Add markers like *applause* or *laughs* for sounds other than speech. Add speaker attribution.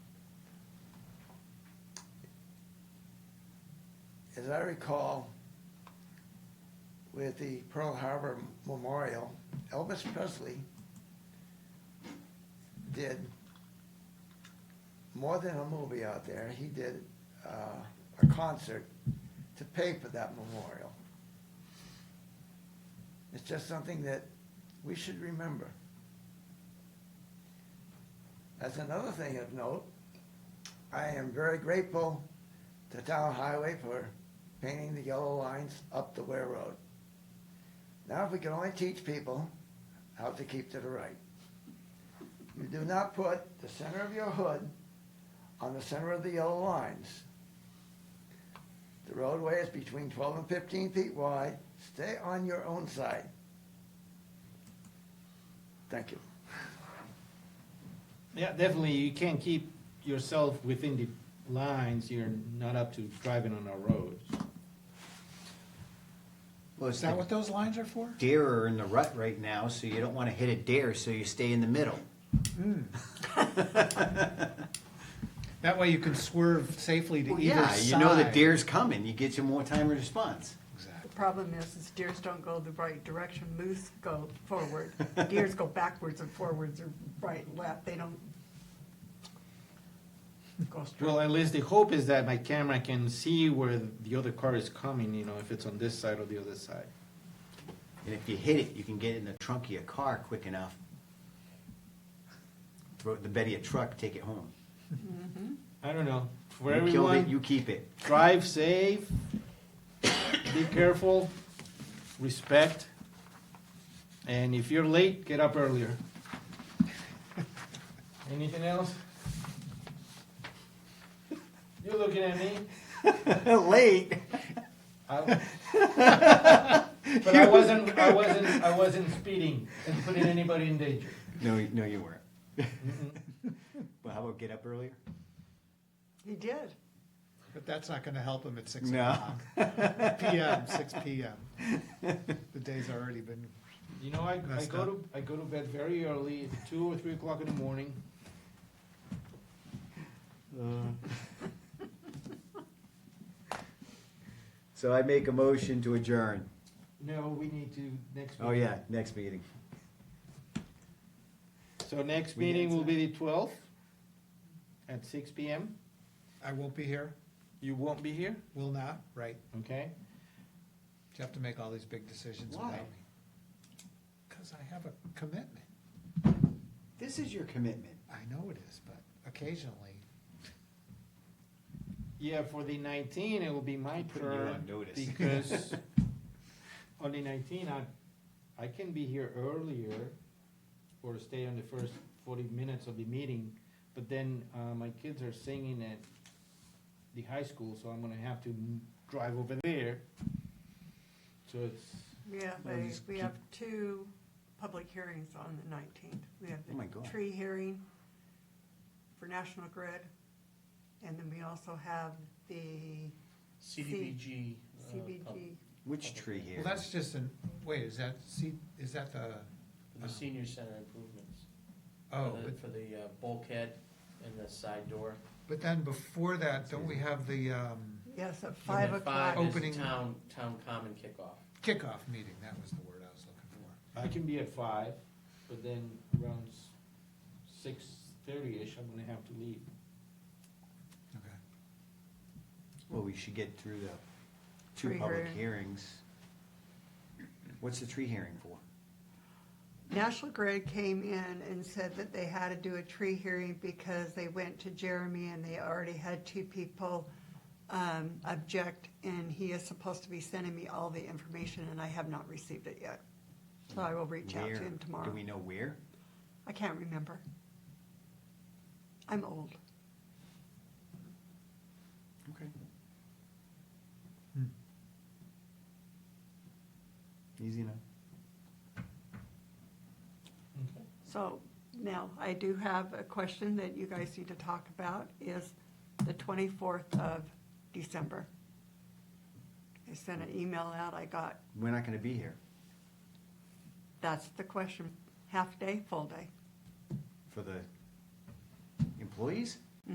Speaker 1: as I recall, with the Pearl Harbor Memorial, Elvis Presley did more than a movie out there. He did uh, a concert to pay for that memorial. It's just something that we should remember. That's another thing of note. I am very grateful to Town Highway for painting the yellow lines up the Ware Road. Now, if we can only teach people how to keep to the right. You do not put the center of your hood on the center of the yellow lines. The roadway is between twelve and fifteen feet wide. Stay on your own side. Thank you.
Speaker 2: Yeah, definitely, you can't keep yourself within the lines, you're not up to driving on our roads.
Speaker 3: Well, it's
Speaker 4: Is that
Speaker 3: the
Speaker 4: what those lines are for?
Speaker 3: deer are in the rut right now, so you don't want to hit a deer, so you stay in the middle.
Speaker 4: That way you can swerve safely to
Speaker 3: Well,
Speaker 4: either
Speaker 3: yeah,
Speaker 4: side.
Speaker 3: you know the deer's coming. You get you more time of response.
Speaker 4: Exactly.
Speaker 5: The problem is, is deers don't go the right direction, moose go
Speaker 3: *laughs*
Speaker 5: forward. Deers go backwards and forwards or right, and left, they don't go straight.
Speaker 2: Well, at least the hope is that my camera can see where the other car is coming, you know, if it's on this side or the other side.
Speaker 3: And if you hit it, you can get it in the trunk of your car quick enough. Throw it in the bed of your truck, take it home.
Speaker 2: I don't know, for
Speaker 3: you killed it,
Speaker 2: everyone,
Speaker 3: you keep it. *laughs*
Speaker 2: drive safe, be careful, respect, and if you're late, get up earlier. *laughs* Anything else? You're looking at me?
Speaker 3: Late.
Speaker 2: *laughs* I- But I wasn't, *laughs* I wasn't, I wasn't speeding and putting anybody in danger.
Speaker 3: No, you- no, you weren't. *laughs* well, how about get up earlier?
Speaker 5: He did.
Speaker 4: But that's not gonna help him at six
Speaker 3: No.
Speaker 4: o'clock. *laughs* PM, six PM. The day's already been,
Speaker 2: You know, I, I
Speaker 4: Messed
Speaker 2: go
Speaker 4: up.
Speaker 2: to, I go to bed very early, at two or three o'clock in the morning. Uh,
Speaker 3: So I make a motion to adjourn.
Speaker 2: No, we need to next.
Speaker 3: Oh
Speaker 2: meeting.
Speaker 3: yeah, next meeting.
Speaker 2: So next
Speaker 3: We
Speaker 2: meeting
Speaker 3: did
Speaker 2: will be the twelfth at six P M.
Speaker 4: I won't be here,
Speaker 2: You won't be here,
Speaker 4: will not, right?
Speaker 2: okay?
Speaker 4: You have to make all these big decisions
Speaker 3: Why?
Speaker 4: without me. Cause I have a commitment.
Speaker 3: This is your commitment.
Speaker 4: I know it is, but occasionally,
Speaker 2: Yeah, for the nineteen, it will be my
Speaker 3: Putting you on
Speaker 2: turn.
Speaker 3: notice. *laughs*
Speaker 2: Because on the nineteen, I, I can be here earlier or stay on the first forty minutes of the meeting. But then, uh, my kids are singing at the high school, so I'm gonna have to m- drive over there. So it's,
Speaker 5: Yeah,
Speaker 3: Well,
Speaker 5: they,
Speaker 3: just
Speaker 5: we
Speaker 3: keep-
Speaker 5: have two public hearings on the nineteenth. We have
Speaker 3: Oh my God.
Speaker 5: the tree hearing for National Grid. And then we also have the
Speaker 6: CDBG. uh, pub-
Speaker 5: CBG.
Speaker 3: Which tree here?
Speaker 4: well, that's just an, wait, is that, see, is that the,
Speaker 6: The senior center improvements. for
Speaker 4: oh,
Speaker 6: the-
Speaker 4: but
Speaker 6: For the uh, bulkhead and the side door.
Speaker 4: But then before that, don't we have the um,
Speaker 5: Yes, at
Speaker 6: And
Speaker 5: five
Speaker 6: then
Speaker 5: o'clock.
Speaker 6: Five
Speaker 4: Opening.
Speaker 6: is town, town common kickoff.
Speaker 4: kickoff meeting? That was the word I was looking for.
Speaker 2: I can be at five, but then around six thirty-ish, I'm gonna have to leave.
Speaker 4: Okay.
Speaker 3: Well, we should get through the two
Speaker 5: Tree
Speaker 3: public
Speaker 5: hearing.
Speaker 3: hearings. What's the tree hearing for?
Speaker 5: National Grid came in and said that they had to do a tree hearing because they went to Jeremy and they already had two people um, object, and he is supposed to be sending me all the information, and I have not received it yet. So I will reach out to
Speaker 3: Where?
Speaker 5: him
Speaker 3: Do
Speaker 5: tomorrow.
Speaker 3: we know where?
Speaker 5: I can't remember. I'm old.
Speaker 3: Okay. Hmm. Easy enough.
Speaker 5: So now, I do have a question that you guys need to talk about, is the 24th of December. I sent an email out, I got
Speaker 3: We're not gonna be here
Speaker 5: That's the question. Half day, full day.
Speaker 3: for the employees?